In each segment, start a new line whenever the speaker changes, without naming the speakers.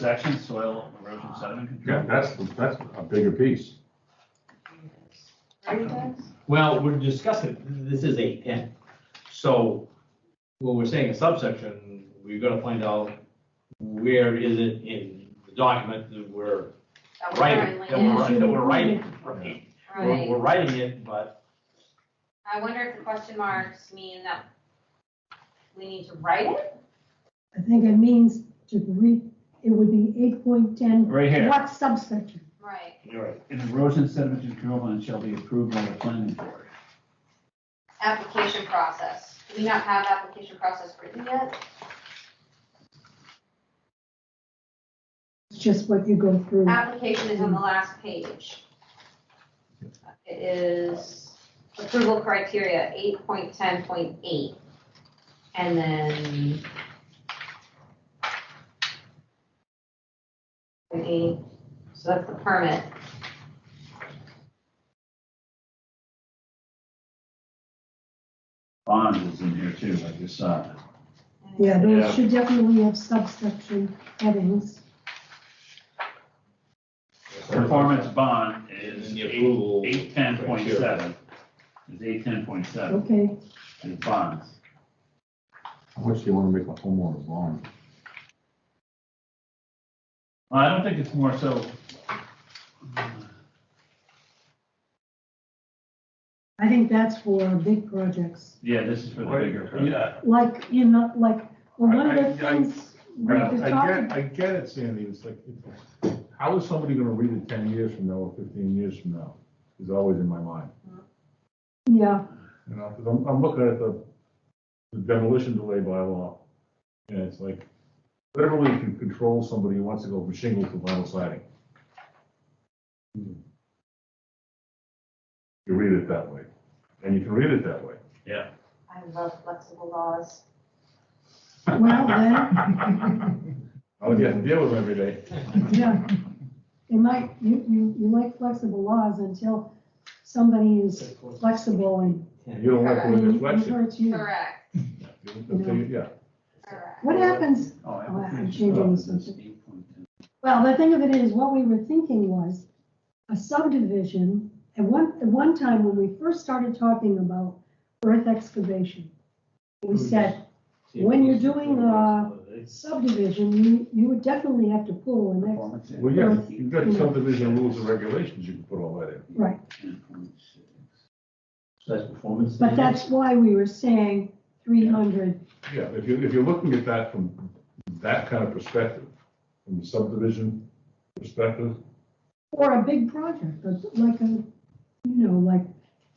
section, soil erosion sediment control.
Yeah, that's, that's a bigger piece.
Are you guys?
Well, we're discussing, this is eight ten, so when we're saying a subsection, we've got to find out where is it in the document that we're
That we're
writing, that
currently in.
we're writing, that we're writing, right? We're,
Right.
we're writing it, but
I wonder if the question marks mean that we need to write it?
I think it means to read, it would be eight point ten,
Right here,
what subsection?
Right,
you're right.
an erosion sediment control plan shall be approved by the planning board.
application process. Do we not have application process written yet?
It's just what you go through.
Application is on the last page. It is approval criteria eight point ten point eight. And then. Okay, so that's the permit.
Bond is in here too, I just saw it. Yeah.
Yeah, those should definitely have subsection headings.
Performance bond is
And the
eight,
approval.
eight ten point seven. Is eight ten point seven,
Okay,
is bonds.
How much do you want to make a homeowner's lawn?
Well, I don't think it's more so.
I think that's for big projects.
Yeah, this is for the bigger. project.
uh, Yeah.
Like, you know, like, well, one of the
I- I- I-
things we
I
could talk
get,
about.
I get it, Sandy, it's like, how is somebody gonna read it ten years from now or fifteen years from now? Is always in my mind,
Yeah,
you know, 'cause I'm, I'm looking at the the demolition delay by law. And it's like, literally, you can control somebody who wants to go from shingle to vinyl siding. You read it that way, and you can read it that way.
I love flexible laws.
well, then,
I would have to Oh, deal with them every day.
yeah. They might, you, you, you like flexible laws until somebody is flexible and
You don't like the
and it
reflection.
hurts you.
Correct,
Yeah,
correct.
What happens
Oh,
I'm
application
changing
process is
something.
8.10.
Well, the thing of it is, what we were thinking was a subdivision, at one, at one time when we first started talking about earth excavation,
Hmm.
we said When you're doing, uh, subdivision, you, you would definitely have to pull an ex,
Performance
well, yeah,
is
you've got subdivision rules and regulations, you can put all that in.
right.
10.6.
So that's performance.
But that's why we were saying three hundred,
Yeah, if you, if you're looking at that from that kind of perspective, from the subdivision perspective,
or a big project, but like a, you know, like,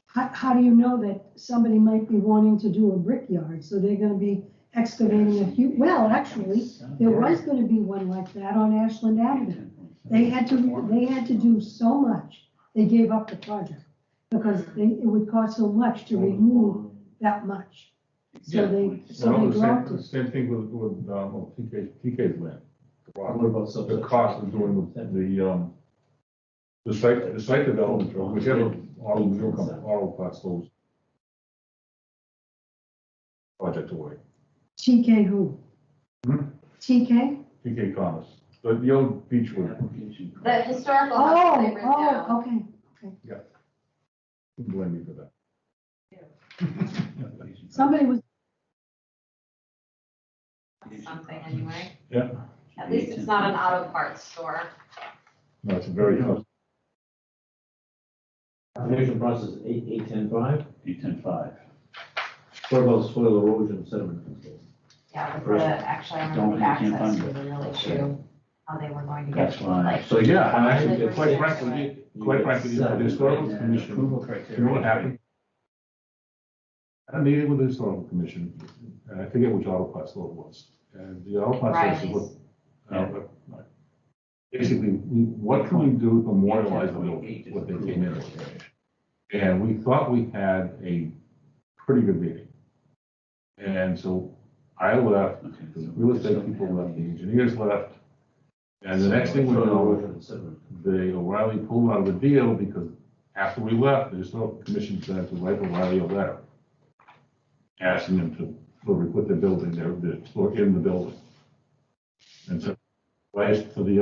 how, how do you know that somebody might be wanting to do a brickyard, so they're gonna be excavating a few, well, actually, There was gonna be one like that on Ashland Avenue. They had to, they had to do so much, they gave up the project because they, it would cost so much to remove that much. So they,
well,
so
the
they dropped
same, the
it.
same thing with, with, um, well, TK, TK's land. the rock.
What about
The
subsection?
cost of doing the, the, um, the site, the site development, or whichever auto, wheel company- auto parts those project away.
TK who?
Hmm?
TK?
TK Commerce, the, the old Beechwood
Application.
The historical house that they
Oh,
ripped down.
oh, okay.
Don't blame me for that.
Application.
Somebody was,
Something anyway.
Yeah.
At least it's not an auto parts store.
No, it's a very tough.
Application process is eight, eight ten five,
Eight ten five.
what about soil erosion sediment control?
Yeah, with the, actually, I remember the
Don't, you can't
access
find
was a real issue, how they were going to get.
That's why.
like,
So, yeah, and
Like
actually,
we're
quite
saying,
frankly,
right?
quite frankly, the
Seven,
historical
yeah.
commission,
Approval criteria.
you know what happened? At a meeting with the historical commission, and I forget which auto parts store it was, and the auto parts store
Riley's.
was, uh, uh, basically, we- what can we do to memorialize the building, what they came in with? And we thought we had a pretty good meeting. And so I left
Okay, so
The real estate people left, the engineers left. And the next thing we
Soil
know,
erosion sediment.
the O'Reilly pulled out of the deal because after we left, the historical commission said to write O'Reilly a letter. Asking them to, to put the building there, the, store in the building. And so, last, to the